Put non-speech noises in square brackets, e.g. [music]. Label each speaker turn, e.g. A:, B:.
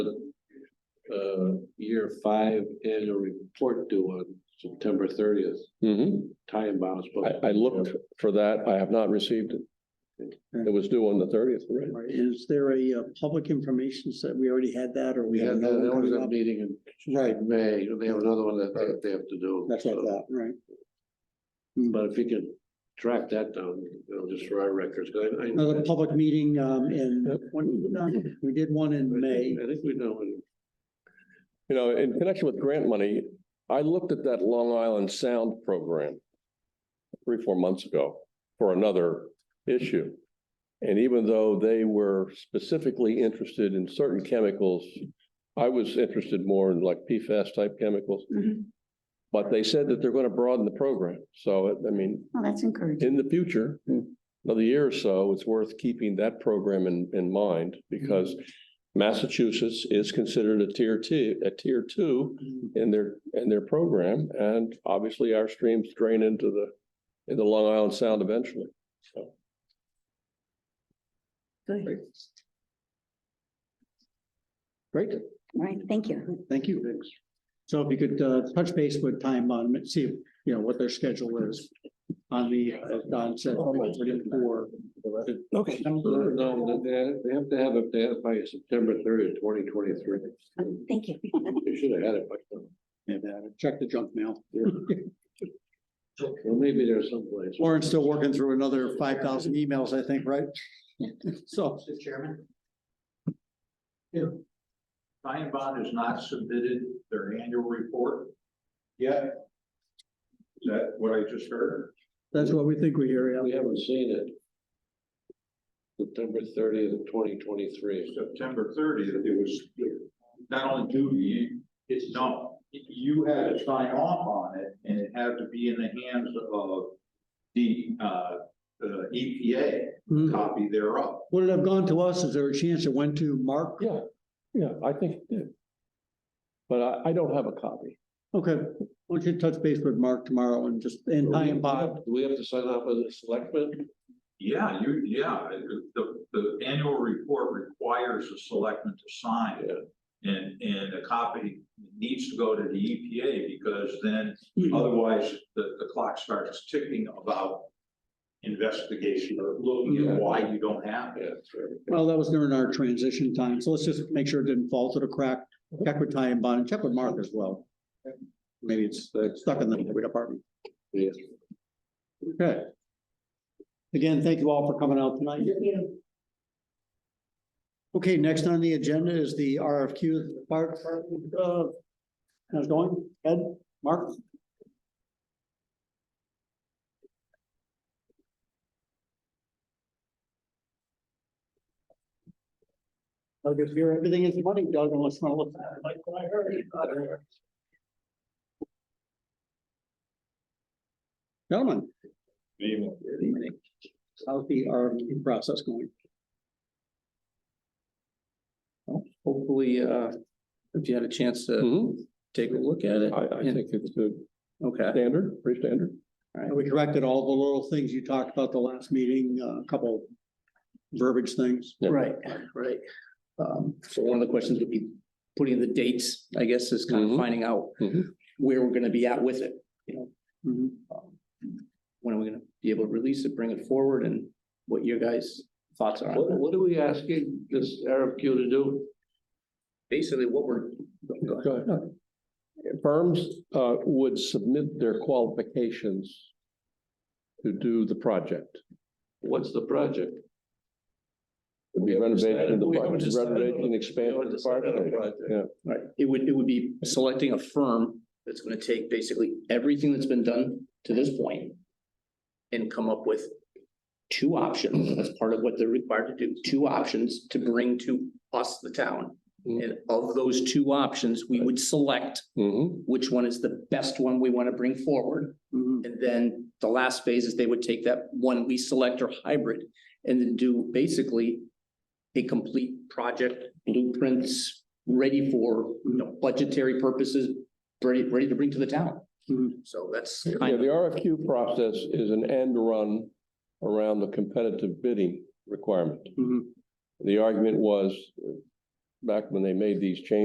A: the uh, year five annual report due on September thirtieth.
B: Mhm.
A: Time bound. is supposed to
B: I, I
A: be-
B: looked for that. I have not received it. It was due on the thirtieth, right?
C: Right, Is there a uh, public information set? We already had that or
A: We
C: we have
A: had
C: another
A: that, that
C: one
A: was
C: coming
A: a
C: up?
A: meeting
C: Right,
A: in May, and they have another one that they- they have to do.
C: that's what I thought, right?
A: But if you can track that down, you know, just for our records, 'cause I, I.
C: Another public meeting um in, one- no, we did one in May.
A: I think we know, when-
B: You know, in connection with grant money, I looked at that Long Island Sound program three, four months ago for another issue. And even though they were specifically interested in certain chemicals, I was interested more in like PFAS type chemicals.
D: Mm-hmm.
B: But they said that they're going to broaden the program. So, I mean,
D: Well, that's encouraging. Hmm.
B: in the future, another year or so, it's worth keeping that program in, in mind because
D: Mm-hmm.
B: Massachusetts is considered a tier two, a tier two in their, in their program. And obviously our streams drain into the, into Long Island Sound eventually. So
D: Good.
C: Great,
D: All right, thank you.
C: thank you. So if you could uh touch base with time on, it, see, you know, what their schedule is on the, as Don said, for.
B: Okay.
A: no, they, they have to have it there by September thirtieth, twenty twenty-three.
D: Um, Thank you.
A: They should have had it by now.
C: And uh, check the junk mail.
A: Well, maybe there's someplace.
C: Lauren's still working through another five thousand emails, I think, right? [laughs] So.
E: Mr. Chairman? If Ryan Bond has not submitted their annual report yet, is that what I just heard?
C: That's what we think we hear,
A: We
C: yeah.
A: haven't seen it. September thirtieth, twenty twenty-three.
E: September thirtieth, it was not only due to you, it's no, you had to sign off on it and it had to be in the hands of the, uh, the EPA,
C: Mhm.
E: copy thereof.
C: Would it have gone to us? Is there a chance it went to Mark?
B: Yeah, yeah, I think it did. But I, I don't have a copy.
C: Okay, why don't you touch base with Mark tomorrow and just, and I and Bob.
A: Do we have to sign up as a selectman?
E: Yeah, you, yeah, the, the annual report requires the selectmen to sign.
A: Yeah.
E: And, and a copy needs to go to the EPA because then
C: Mm-hmm.
E: otherwise the, the clock starts ticking about investigation or looking
A: Yeah.
E: at why you don't have it.
A: Yeah, that's right.
C: Well, that was during our transition time, so let's just make sure it didn't fall to the crack. Check with Ty and Bond, and check with Mark as well. Maybe it's uh, stuck in the highway department.
A: Yeah.
C: Okay. Again, thank you all for coming out tonight. Okay, next on the agenda is the RFQ, the fire department, uh, how's it going? Ed, Mark? I'll just hear everything is money, Doug, unless you want to look. Like what I heard. Gentlemen. How's the RFQ process going?
F: Hopefully, uh, if you had a chance to
B: Mhm.
F: take a look at it.
B: I, I
F: and-
B: think it's a
F: Okay,
B: standard, pretty standard.
C: And We corrected all the little things you talked about the last meeting, uh, a couple verbiage things.
B: Yeah.
F: right, right. Um, so one of the questions would be putting the dates, I guess, is kind
B: Mhm.
F: of finding out
B: Mhm.
F: where we're gonna be at with it, you know?
C: Mhm.
F: Um, When are we gonna be able to release it, bring it forward, and what your guys' thoughts are on
A: What,
F: that?
A: what are we asking this RFQ to do?
F: Basically, what we're. go ahead.
B: Go ahead. Firms uh, would submit their qualifications to do the project.
A: What's the project?
B: It'd be Renovation, of the
A: We
B: park-
A: haven't decided.
B: renovation,
A: We
B: expansion
A: haven't
B: of the park.
A: decided on a project.
B: Yeah,
F: Right, it would, it would be selecting a firm that's gonna take basically everything that's been done to this point And come up with two options, that's part of what they're required to do, two options to bring to us, the town.
B: Mm-hmm.
F: And of those two options, we would select
A: Mm-hmm.
B: Mhm.
F: which one is the best one we wanna bring forward.
C: Mhm.
B: Mm-hmm.
F: And then the last phase is they would take that one we select or hybrid and then do basically a complete project blueprints ready for, you know, budgetary purposes, ready, ready to bring to the town.
C: Mhm.
F: So that's
B: Mm-hmm. Yeah,
F: kind
B: the
F: of,
B: RFQ process is an end run around the competitive
F: Mm-hmm.
B: bidding requirement.
C: Mhm.
B: The argument was, uh, back when they made these changes